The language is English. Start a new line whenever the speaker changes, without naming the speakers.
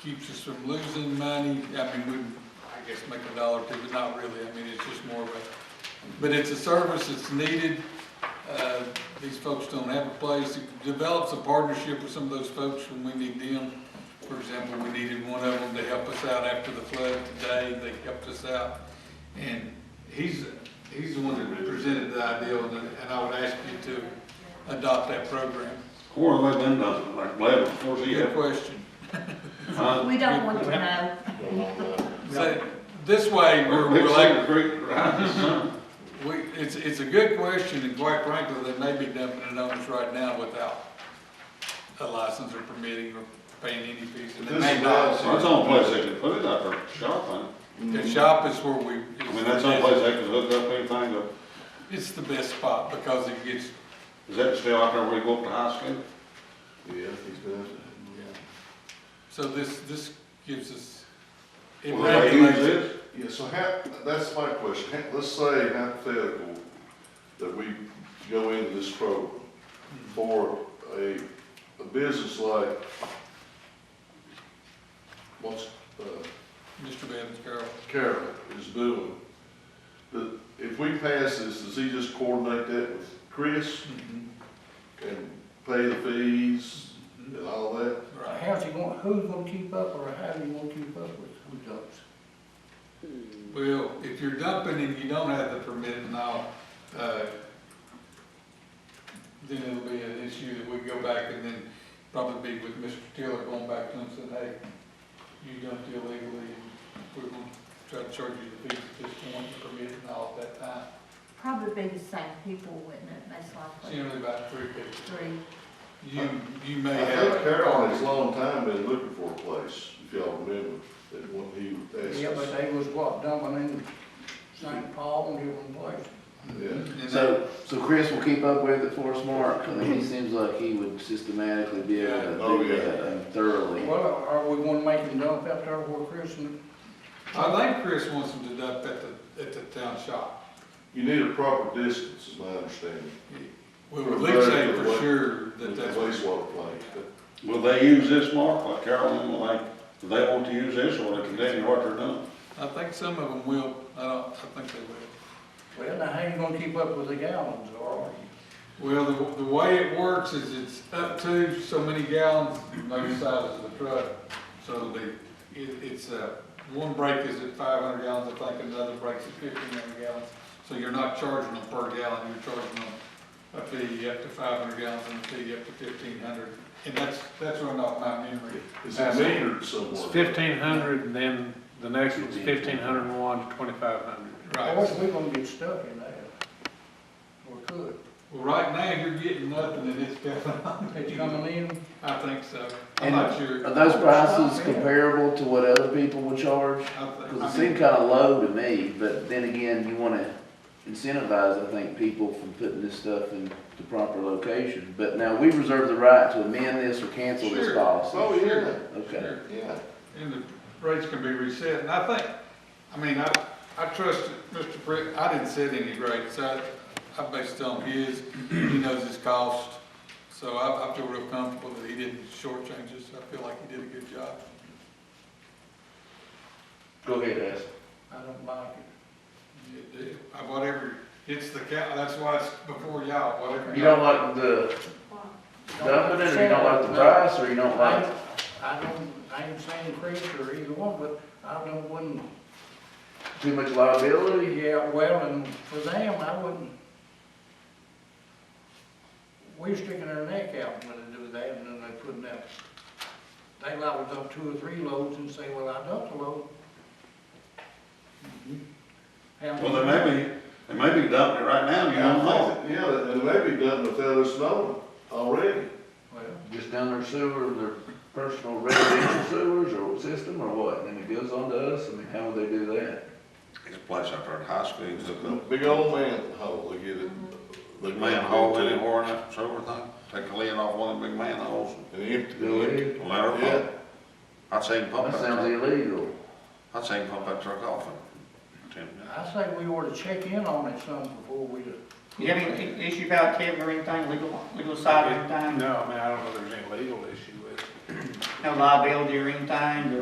keeps us from losing money. I mean, we, I guess make a dollar or two, but not really. I mean, it's just more of a, but it's a service that's needed. Uh, These folks don't have a place. It develops a partnership with some of those folks when we need them. For example, we needed one of them to help us out after the flood today. They helped us out. And he's, he's the one that presented the idea, and and I would ask you to adopt that program.
Or let them does it, like Lebanon, of course, he
Good
had.
question.
huh?
We don't want to know.
So, this way, we're,
Big
we're like,
Cedar Creek, right, his son.
We, it's, it's a good question, and quite frankly, they may be dumping it on us right now without a license or permitting or paying any fees, and they
This
may
is
not.
Well, That's the only place they could put it up there, shop on.
The shop is where we.
I mean, that's the only place they could hook up anything, but
It's the best spot, because it gets,
is that still out there where you go up to high school?
Yeah, he's does.
so this, this gives us. it
Well,
Where they use
regulates it.
this?
Yeah, so how, that's my question, Ha- let's say hypothetical, that we go into this program
Hmm.
for a, a business like, what's, uh,
Mr. Bevins, Carol,
Carol is doing. But if we pass this, does he just coordinate that with Chris
Hmm.
and pay the fees and all that?
right,
How's he going, who's gonna keep up, or how do you wanna keep up with who dumps?
well, if you're dumping and you don't have the permit and all, uh, then it'll be an issue that we go back and then probably be with Mr. Taylor going back to him and saying, hey, you dumped illegally, and we're gonna try to charge you the fee at this point, permit and all at that time.
Probably be the same people, wouldn't it, most
It's
likely?
Generally about three people.
Three.
You, you may
I
have.
think Carol has a long time been looking for a place, if y'all remember, that when he asked
Yeah, but
us.
they was what, dumping in St. Paul and different places.
Yeah.
And that-
So, so Chris will keep up with it for us, Mark? I mean, he seems like he would systematically be able
Yeah.
Oh,
to
yeah.
do that and thoroughly.
Well, are we gonna make him dump out there where Chris and,
I think Chris wants them to dump at the, at the town shop.
You need a proper distance, is my understanding,
We would at least say for sure
with
that
the
that's what
wastewater plant. But
Will they use this, Mark, like Carolyn, will they, do they want to use this, or will they continue what they're doing?
I think some of them will, I don't, I think they
well, now how you gonna keep up with the gallons, or?
will. Well, the, the way it works is it's up to so many gallons, maybe the size of the truck. So the, it, it's, uh, one break is at five hundred gallons, I think, another break's at fifteen hundred gallons. So you're not charging them per gallon, you're charging them a fee up to five hundred gallons and a fee up to fifteen hundred. And that's, that's run off my memory.
Is it metered somewhere?
It's fifteen hundred, and then the next one's fifteen hundred and one to twenty-five hundred.
Right.
Or we gonna get stuck in there? Or could,
Well, right now, you're getting nothing and it's coming on.
it's coming in,
I think so. I'm
And-
not sure.
Are those prices comparable to what other people would charge?
I think-
Because
I
it seemed
mean,
kind of low to me, but then again, you want to incentivize, I think, people from putting this stuff in the proper location. But now, we reserve the right to amend this or cancel this
Sure.
policy.
Oh, yeah,
Okay.
sure.
yeah.
And the rates can be reset, and I think, I mean, I, I trust Mr. Brett, I didn't set any rates, I, I based it on his, he knows his cost. So I, I feel real comfortable that he didn't shortchange us, I feel like he did a good job.
Go ahead, Ash.
I don't like it.
It did. Uh, Whatever, it's the cow, that's why it's before y'all, whatever.
You don't like the dumping it, or you don't like the price, or you don't
I,
like?
don't- I don't, I ain't saying Chris or either one, but I don't, wouldn't
Too much liability?
Yeah, well, and for them, I wouldn't. We're sticking our neck out when they do that, and then they put in that, they liable to dump two or three loads and say, well, I dumped a load. Have-
Well, they may be, they may be dumping it right now, you don't know.
Yeah, and maybe done without us knowing already.
Well,
Just down their sewer, their personal residential sewers or system or what? And then it goes on to us? I mean, how would they do that?
It's a place out there at high school, it's
The
a
Big old manhole, they get it. They
big manhole in it, or that sort of thing. Take a lid off one of the big manholes,
And empty.
Go ahead.
and let her
Yeah.
pump. I'd say pump
That
that
sounds
truck,
illegal.
I'd say pump that truck off in ten minutes.
I say we ought to check in on it some before we do.
Do you have any issue about Kevin or anything, legal, legal side or anything?
No, I mean, I don't know if there's any legal issue with it.
no liability or anything,